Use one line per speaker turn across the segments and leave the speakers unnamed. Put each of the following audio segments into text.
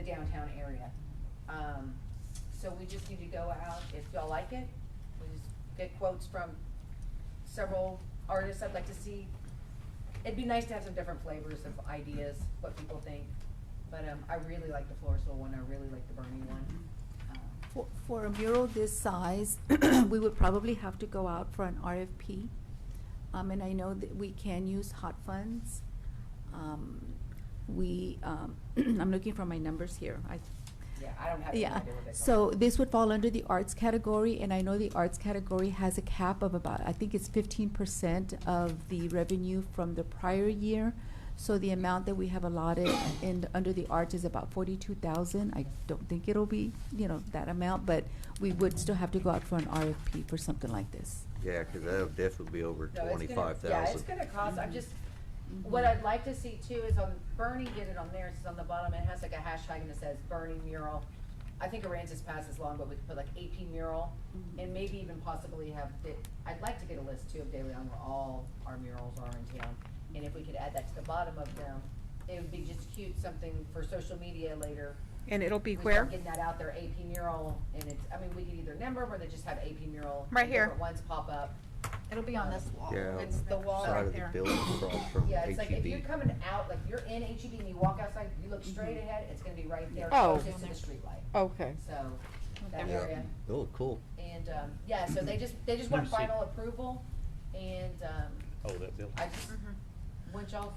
downtown area. Um, so we just need to go out, if y'all like it, we just get quotes from several artists I'd like to see. It'd be nice to have some different flavors of ideas, what people think, but, um, I really like the Floresville one, I really like the Bernie one. Um,
For- For a mural this size, we would probably have to go out for an RFP. Um, and I know that we can use hot funds. Um, we, um, I'm looking for my numbers here. I,
Yeah, I don't have any
yeah.
idea what they call it.
So this would fall under the arts category, and I know the arts category has a cap of about, I think it's fifteen percent of the revenue from the prior year. So the amount that we have allotted in, under the arts is about forty-two thousand. I don't think it'll be, you know, that amount, but we would still have to go out for an RFP for something like this.
Yeah, because that'll definitely be over
No, it's gonna-
twenty-five
Yeah, it's
thousand.
gonna cost, I'm just,
Mhm.
what I'd like to see too is on, Bernie did it on theirs, it's on the bottom, it has like a hashtag and it says Bernie mural. I think Aransas Pass is long, but we could put like AP mural,
Mhm.
and maybe even possibly have, the- I'd like to get a list too of De Leon where all our murals are in town. And if we could add that to the bottom of them, it would be just cute, something for social media later.
And it'll
We
be
start
where?
Getting that out there, AP mural, and it's, I mean, we could either number them or they just have AP mural.
Right
and
here.
Different ones pop up. Um,
It'll be on this wall.
Yeah.
It's the wall
Side
right
of the
there.
building across from E
Yeah, it's like
E
if you're
HEB.
coming out, like you're in HEB and you walk outside, you
Mm-hmm.
look straight ahead, it's gonna be right there,
Oh.
closest to the streetlight.
Okay.
So, that
Yeah.
area.
Oh, cool.
And, um, yeah, so they just, they just want
Let me see.
final approval and, um,
Oh, that building.
I just want y'all's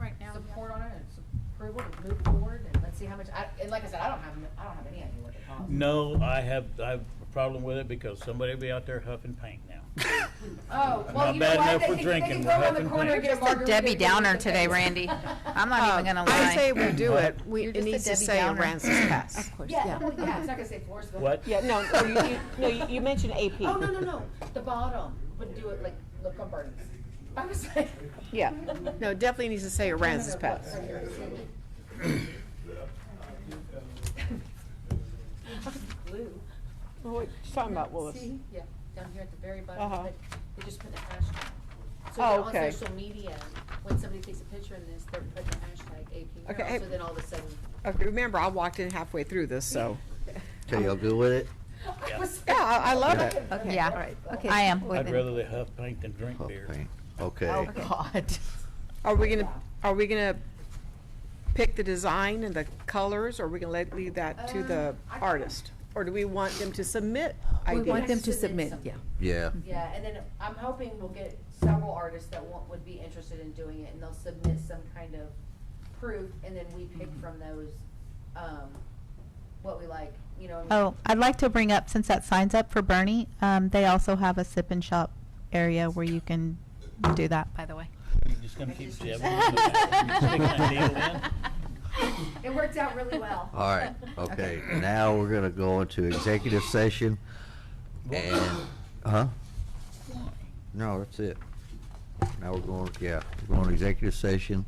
Right now. Mm-hmm. yeah.
support on it and sup- approval to move forward and let's see how much, I, and like I said, I don't have, I don't have any idea what it costs.
No, I have, I have a problem with it because somebody will be out there huffing paint now.
Oh, well,
Not
you know
bad
what,
enough
they
for
can, they can
drinking,
go around the
we're
corner and
having
get a
Just a
margarita.
Debbie
and get
Downer
something.
today, Randy. I'm not even gonna lie.
Um, I say we do it, we,
You're
it
just a
needs to
Debbie
say
Downer.
Aransas Pass.
Of course,
Yeah,
yeah.
well, yeah, it's not gonna say Forestville.
What?
Yeah, no, no, you, you, no, you- you mentioned AP.
Oh, no, no, no, the bottom would do it like, look on Bernie's. I was like.
Yeah, no, it definitely needs to say Aransas Pass.
Right here. Blue.
Well, What you talking about, Willis?
See, yeah, down here at the very bottom,
Uh-huh.
of it, they just put the hashtag. So
Oh,
then
okay.
on social media, when somebody takes a picture in this, they're putting the hashtag AP
Okay, hey-
mural, so then all of a sudden.
Okay, remember, I walked in halfway through this, so,
Okay, y'all good with it?
I was-
yeah, uh, I, I love it.
Okay.
Yeah.
All right, okay.
I am.
I'd rather they huff paint than drink
Oh,
beer.
paint.
Oh,
Okay,
God.
Are we gonna, are we gonna pick the design and the colors, or are we gonna let, leave that to the
Um, I-
artist? Or do we want them to submit
We
ideas?
want them to
Submit
submit, yeah.
something.
yeah.
Yeah, and then I'm hoping we'll get several artists that want, would be interested in doing it, and they'll submit some kind of proof, and then we pick
Mm-hmm.
from those, um, what we like, you know. what I mean?
Oh, I'd like to bring up, since that sign's up for Bernie, um, they also have a sip and shop area where you can do that, by the way.
You're just gonna keep jabbing. it.
It worked out really well.
All right, okay. Now we're gonna go into executive session and, huh? No, that's it. Now we're going, yeah, we're going to executive session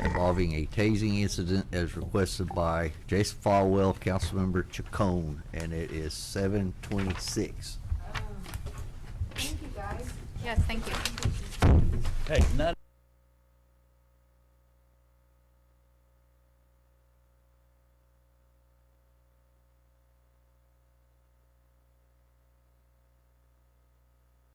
involving a tasing incident as requested by Jason Falwell, Councilmember Chacon, and it is seven twenty-six.
Um, Thank you, guys.
Yes, thank you.
Hey, not